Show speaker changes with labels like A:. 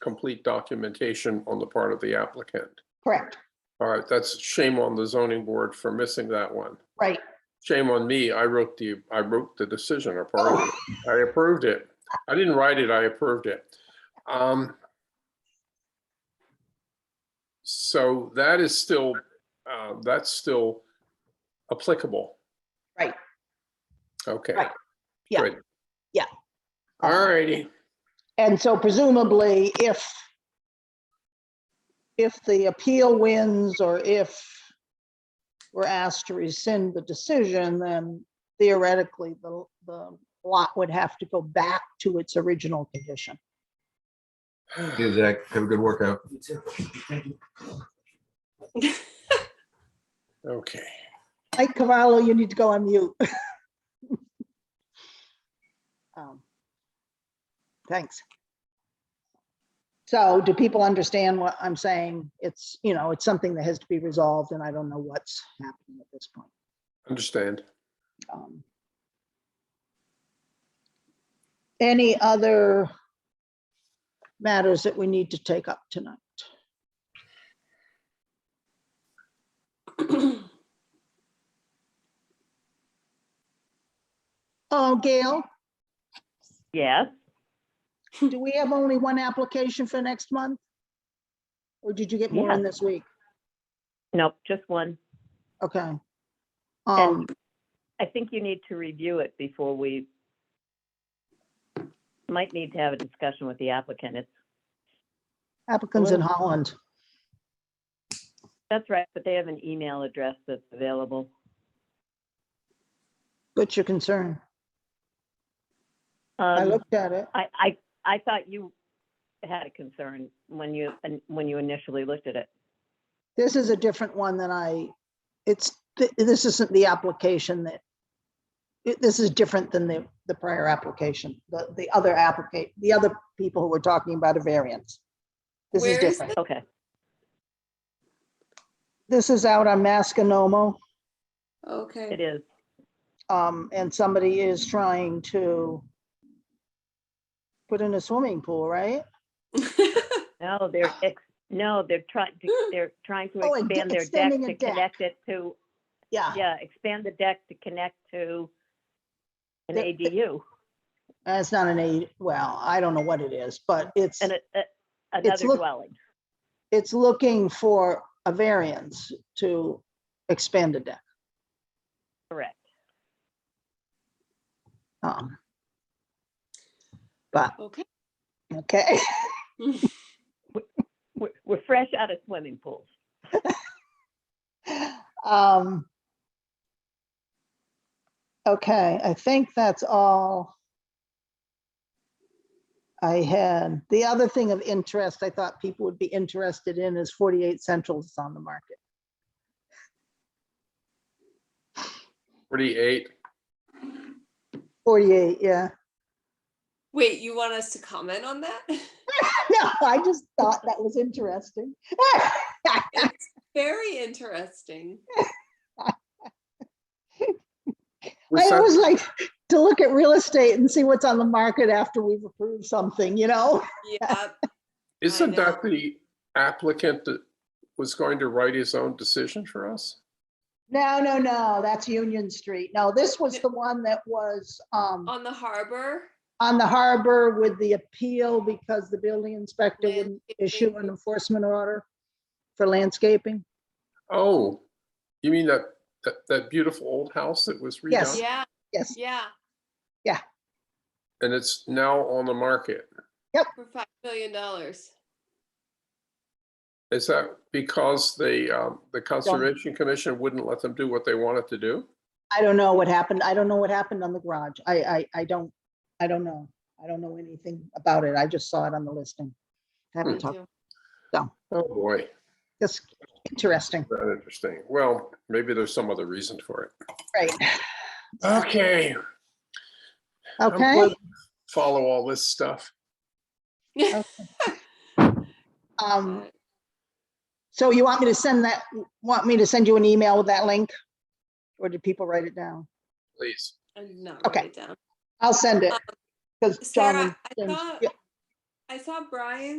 A: complete documentation on the part of the applicant.
B: Correct,
A: All right, that's shame on the zoning board for missing that one.
B: right.
A: Shame on me, I wrote the, I wrote the decision or part of it. I approved it. I didn't write it, I approved it. Um, So that is still, uh, that's still applicable.
B: Right.
A: Okay.
B: Right. Yeah.
A: Good.
B: Yeah.
A: All righty.
B: And so presumably, if, if the appeal wins or if we're asked to rescind the decision, then theoretically, the, the lot would have to go back to its original condition.
C: Yeah, Zach, have a good workout.
A: Okay.
B: Mike Cavallo, you need to go on mute. Um, Thanks. So do people understand what I'm saying? It's, you know, it's something that has to be resolved and I don't know what's happening at this point.
A: Understand.
B: Um, Any other matters that we need to take up tonight? Oh, Gail,
D: Yes,
B: do we have only one application for next month? Or did you get more in this week?
D: nope, just one.
B: Okay. Um,
D: And I think you need to review it before we might need to have a discussion with the applicant. It's,
B: applicants in Holland.
D: that's right, but they have an email address that's available.
B: What's your concern? I
D: Um,
B: looked at it.
D: I, I, I thought you had a concern when you, when you initially looked at it.
B: This is a different one than I, it's, th- this isn't the application that, it- this is different than the, the prior application, the, the other applicant, the other people who were talking about a variance. This is
E: Where is
B: different.
D: Okay,
B: This is out on Masconomo,
D: it
E: Okay,
D: is.
B: um, and somebody is trying to put in a swimming pool, right?
D: No, they're, ex- no, they're trying, they're trying to
B: Oh, a de-
D: expand their deck
B: extending a
D: to
B: deck. Ah.
D: connect it to,
B: Yeah,
D: yeah, expand the deck to connect to an
B: The- the-
D: ADU.
B: Uh, it's not an eight, well, I don't know what it is, but it's,
D: And a- a- another
B: look-
D: dwelling.
B: it's looking for a variance to expand a deck.
D: Correct.
B: Um, But,
E: okay.
B: okay,
D: We're, we're fresh out of swimming pools.
B: um. Okay, I think that's all. I had, the other thing of interest I thought people would be interested in is 48 Central is on the market.
A: 48.
B: 48, yeah.
E: Wait, you want us to comment on that?
B: No, I just thought that was interesting.
E: Very interesting.
A: Was
B: I
A: that-
B: always like to look at real estate and see what's on the market after we've approved something, you know?
E: Yeah,
A: Isn't
E: know.
A: that the applicant that was going to write his own decision for us?
B: No, no, no, that's Union Street. No, this was the one that was
A: Oh.
B: um
E: on the harbor.
B: on the harbor with the appeal because the building inspector wouldn't issue an
E: Landscaping.
B: enforcement order for landscaping.
A: Oh, you mean that, that, that beautiful old house that was
B: Yes.
A: redone?
E: Yeah,
B: Yes,
E: yeah,
A: And it's now on the market?
E: for five million dollars.
A: Is that because the, um, the Conservation Commission wouldn't let them do what they wanted to do?
B: I don't know what happened. I don't know what happened on the garage. I, I, I don't, I don't know. I don't know anything about it. I just saw it on the listing. Haven't talked,
A: Oh, boy,
B: that's interesting,
A: that interesting. Well, maybe there's some other reason for it.
B: right?
A: Okay. I'm glad
B: Okay,
A: you Follow all this stuff.
B: um, so you want me to send that, want me to send you an email with that link? Or did people write it down?
A: Please.
E: I did not write
B: okay.
E: it down.
B: I'll send it. Because John.
E: Sarah,
B: and
E: I
B: James-
E: thought,
B: yeah.
E: I saw Brian